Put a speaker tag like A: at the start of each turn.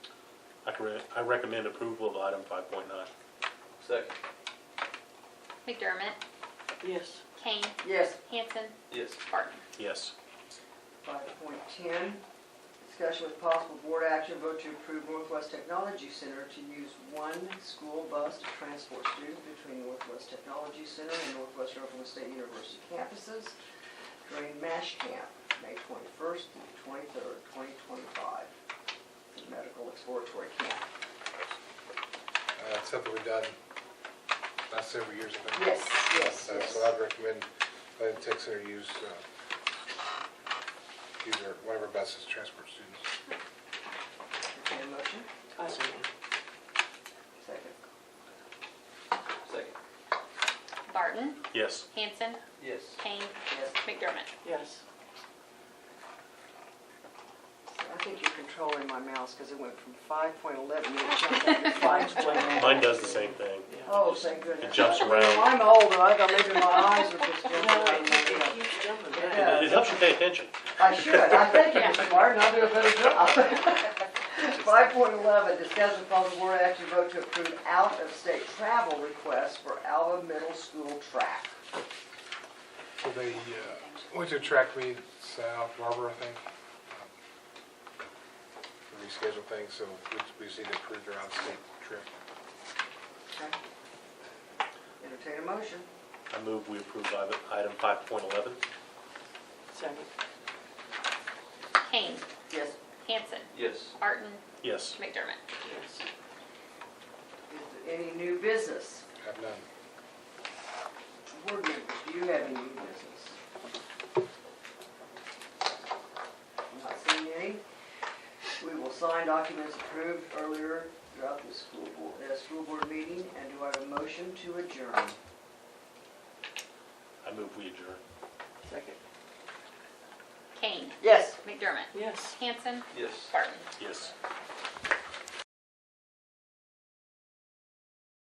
A: I can re- I recommend approval of item five point nine.
B: Second.
C: McDermott,
D: Yes.
C: Kane,
E: Yes.
C: Hanson,
B: Yes.
C: Barton.
A: Yes.
E: Five point ten, discussion with possible board action, vote to approve Northwest Technology Center to use one school bus to transport students between Northwest Technology Center and Northwest Oklahoma State University campuses during MASH camp, May twenty-first through twenty-third, twenty twenty-five, medical exploratory camp.
F: Uh, It's something we've done last several years. I think.
E: Yes, yes,
F: Uh,
E: yes.
F: So I'd recommend letting Tech Center use, uh, use our, one of our buses to transport students.
E: Entertained a motion,
D: I see.
E: second.
B: Second.
C: Barton,
A: Yes.
C: Hanson,
B: Yes.
C: Kane,
E: Yes.
C: McDermott.
D: Yes.
E: I think you're controlling my mouse because it went from five point eleven, it jumped up to five point nine.
A: Mine does the same thing.
E: Oh, thank goodness.
A: It jumps around.
E: I'm older, I thought maybe my eyes were just
D: No,
E: jumping
D: it,
E: around.
D: it keeps jumping back.
A: It helps you pay attention.
E: I should, I think you're smart, and I'll do a better job. Five point eleven, discuss with possible board action vote to approve out-of-state travel requests for Alva Middle School track.
F: So they uh, went to a track meet south Harbor, I think. um, to Reschedule things, so we- we just need to approve their out-of-state trip.
E: Okay. Entertain a motion.
A: I move we approve item- item five point eleven.
D: Second.
C: Kane,
E: Yes.
C: Hanson,
B: Yes.
C: Barton,
A: Yes.
C: McDermott.
D: Yes.
E: Is there any new business?
F: Have none.
E: Board members, do you have any new business? I'm Not seeing any. We will sign documents approved earlier throughout the school board, uh, school board meeting, and do I have a motion to adjourn?
A: I move we adjourn.
D: Second.
C: Kane,
E: Yes.
C: McDermott,
D: Yes.
C: Hanson,
B: Yes.
C: Barton.
A: Yes.